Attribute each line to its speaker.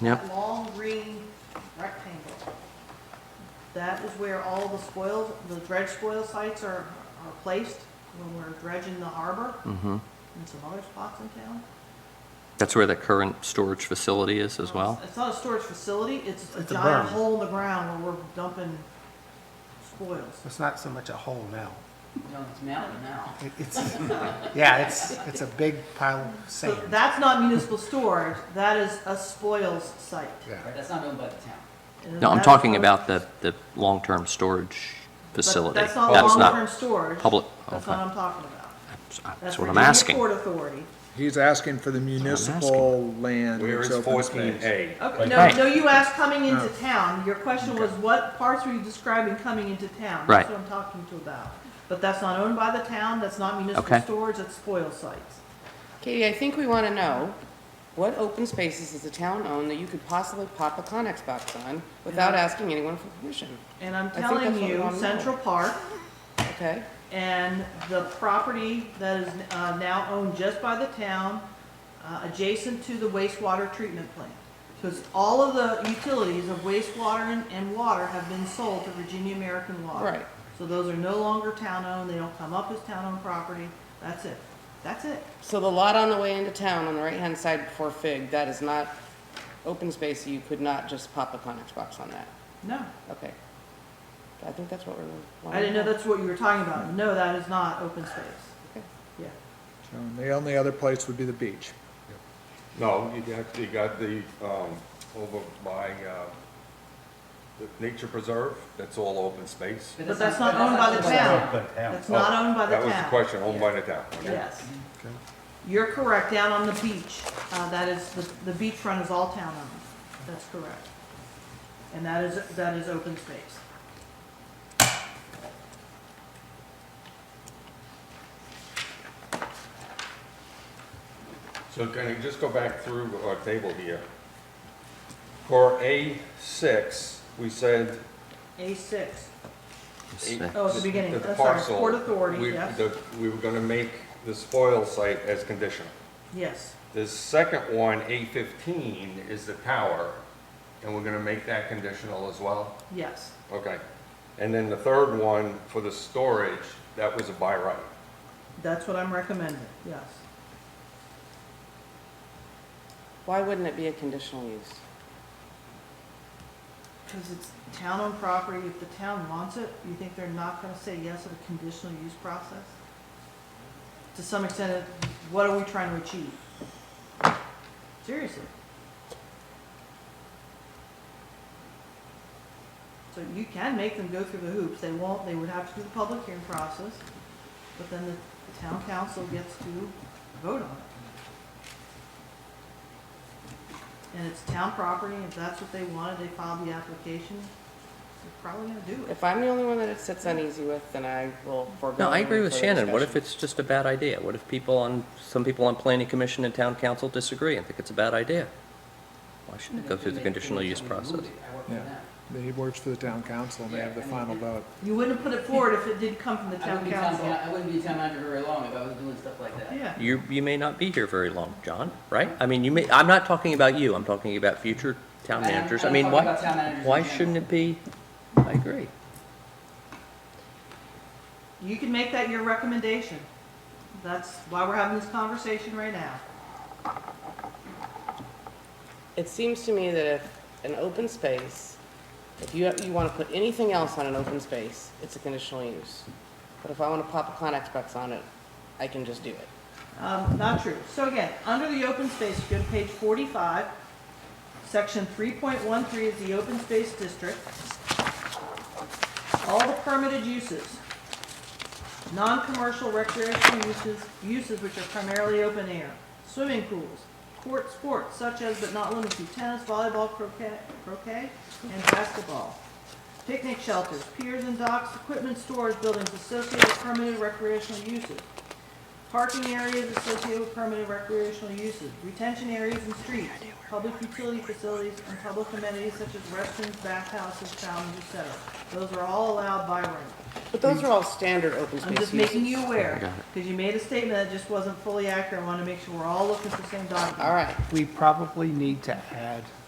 Speaker 1: Yep.
Speaker 2: long green rectangle. That is where all the spoil, the dredge spoil sites are, are placed when we're dredging the harbor
Speaker 1: Mm-hmm.
Speaker 2: and some other spots in town.
Speaker 1: That's where the current storage facility is as well?
Speaker 2: It's not a storage facility, it's a
Speaker 3: It's a
Speaker 2: giant
Speaker 3: berm.
Speaker 2: hole in the ground where we're dumping spoils.
Speaker 3: It's not so much a hole now.
Speaker 4: No, it's mountain now.
Speaker 3: It- It's, yeah, it's, it's a big pile of
Speaker 2: So
Speaker 3: sand.
Speaker 2: that's not municipal storage, that is a spoils site.
Speaker 3: Yeah.
Speaker 4: Right, That's not owned by the town.
Speaker 2: And
Speaker 1: No, I'm
Speaker 2: that's
Speaker 1: talking
Speaker 2: what-
Speaker 1: about the, the long-term storage
Speaker 2: but
Speaker 1: facility.
Speaker 2: That's not
Speaker 1: That's
Speaker 2: long-term storage.
Speaker 1: public-
Speaker 2: That's what
Speaker 1: okay.
Speaker 2: I'm talking about.
Speaker 1: That's what I'm
Speaker 2: Virginia
Speaker 1: asking.
Speaker 2: Port Authority.
Speaker 5: He's asking for the municipal land.
Speaker 6: Where is
Speaker 5: that's open
Speaker 6: fourteen
Speaker 5: space.
Speaker 6: A?
Speaker 2: Okay, no,
Speaker 1: Right.
Speaker 2: no, you asked coming into
Speaker 1: Oh.
Speaker 2: town, your question was what parts were you describing coming into town?
Speaker 1: Right.
Speaker 2: That's what I'm talking to about. But that's not owned by the town, that's not municipal
Speaker 1: Okay.
Speaker 2: storage, that's spoil sites.
Speaker 7: Katie, I think we want to know, what open spaces does the town own that you could possibly pop a Connex box on without asking anyone for permission,
Speaker 2: And I'm
Speaker 7: think that's
Speaker 2: telling
Speaker 7: what we
Speaker 2: you,
Speaker 7: wanna know.
Speaker 2: Central Park
Speaker 7: okay?
Speaker 2: and the property that is uh, now owned just by the town, uh, adjacent to the wastewater treatment plant. Because all of the utilities of wastewater and- and water have been sold to Virginia American Water.
Speaker 7: Right.
Speaker 2: So those are no longer town-owned, they don't come up as town-owned property, that's it, that's it.
Speaker 7: So the lot on the way into town on the right-hand side before Fig, that is not open space, you could not just pop a Connex box on that,
Speaker 2: No,
Speaker 7: okay? I think that's what we're. wanting
Speaker 2: I didn't know
Speaker 7: to
Speaker 2: that's what you were talking about, no, that is not open space.
Speaker 7: Okay.
Speaker 2: Yeah,
Speaker 5: So The only other place would be the beach.
Speaker 6: No, you got, you got the, um, over by, uh, the nature preserve, that's all open space.
Speaker 2: But that's not owned by the town, that's not owned by the
Speaker 6: That
Speaker 2: town.
Speaker 6: was the question, owned by the town. okay.
Speaker 2: Yes. You're correct, down on the beach, uh, that is, the, the beachfront is all town owned, that's correct. And that is, that is open space.
Speaker 6: So can I just go back through our table here? For A six, we said.
Speaker 2: A six,
Speaker 1: Six.
Speaker 2: Oh, at the beginning.
Speaker 6: the
Speaker 2: Oh, sorry.
Speaker 6: parcel,
Speaker 2: Port Authority,
Speaker 6: we-
Speaker 2: yes.
Speaker 6: the- We were gonna make the spoil site as conditional.
Speaker 2: yes,
Speaker 6: The second one, A fifteen, is the tower, and we're gonna make that conditional as well?
Speaker 2: yes,
Speaker 6: Okay. And then the third one, for the storage, that was a by right.
Speaker 2: that's what I'm recommending, yes.
Speaker 7: Why wouldn't it be a conditional use?
Speaker 2: Because it's town owned property, if the town wants it, you think they're not gonna say yes at a conditional use process? To some extent, it- what are we trying to achieve? Seriously. So you can make them go through the hoops, they won't, they would have to do the public hearing process, but then the town council gets to vote on it. And it's town property, if that's what they wanted, they filed the application, they're probably gonna do it.
Speaker 7: If I'm the only one that it sits uneasy with, then I will forego.
Speaker 1: No, I
Speaker 7: any
Speaker 1: agree with
Speaker 7: further
Speaker 1: Shannon. What if
Speaker 7: discussion.
Speaker 1: it's just a bad idea? What if people on, some people on planning commission and town council disagree and think it's a bad idea? Why shouldn't it go through the conditional use process?
Speaker 4: I work for
Speaker 5: Yeah.
Speaker 4: them.
Speaker 5: He works for the town council and they have the final vote.
Speaker 2: You wouldn't put it forward if it did come from the
Speaker 4: I wouldn't
Speaker 2: town
Speaker 4: be town,
Speaker 2: council.
Speaker 4: I wouldn't be town manager very long if I was doing stuff like that.
Speaker 2: Yeah,
Speaker 1: You, you may not be here very long, John, right? I mean, you may, I'm not talking about you, I'm talking about future town
Speaker 4: I am-
Speaker 1: managers. I
Speaker 4: I'm
Speaker 1: mean,
Speaker 4: talking
Speaker 1: why,
Speaker 4: about town managers in
Speaker 1: why
Speaker 4: general.
Speaker 1: shouldn't it be? I agree.
Speaker 2: you can make that your recommendation. That's why we're having this conversation right now.
Speaker 7: It seems to me that if an open space, if you, you want to put anything else on an open space, it's a conditional use. But if I want to pop a Connex box on it, I can just do it.
Speaker 2: Um, not true. So again, under the open space, you go to page forty-five, section three point one three is the open space district. All the permitted uses, non-commercial recreational uses, uses which are primarily open air, swimming pools, court sports such as but not limited to tennis, volleyball, croquet, croquet, and basketball. Picnic shelters, piers and docks, equipment stores, buildings associated with permitted recreational uses parking areas associated with permitted recreational uses, retention areas and streets, public utility facilities, and public amenities such as restrooms, bathhouses, fountains, etc. Those are all allowed by right.
Speaker 7: But those are all standard open
Speaker 2: I'm
Speaker 7: space
Speaker 2: just
Speaker 7: uses.
Speaker 2: making you aware,
Speaker 1: Got it.
Speaker 2: because you made a statement that just wasn't fully accurate. I want to make sure we're all looking at the same document.
Speaker 7: All right,
Speaker 3: We probably need to add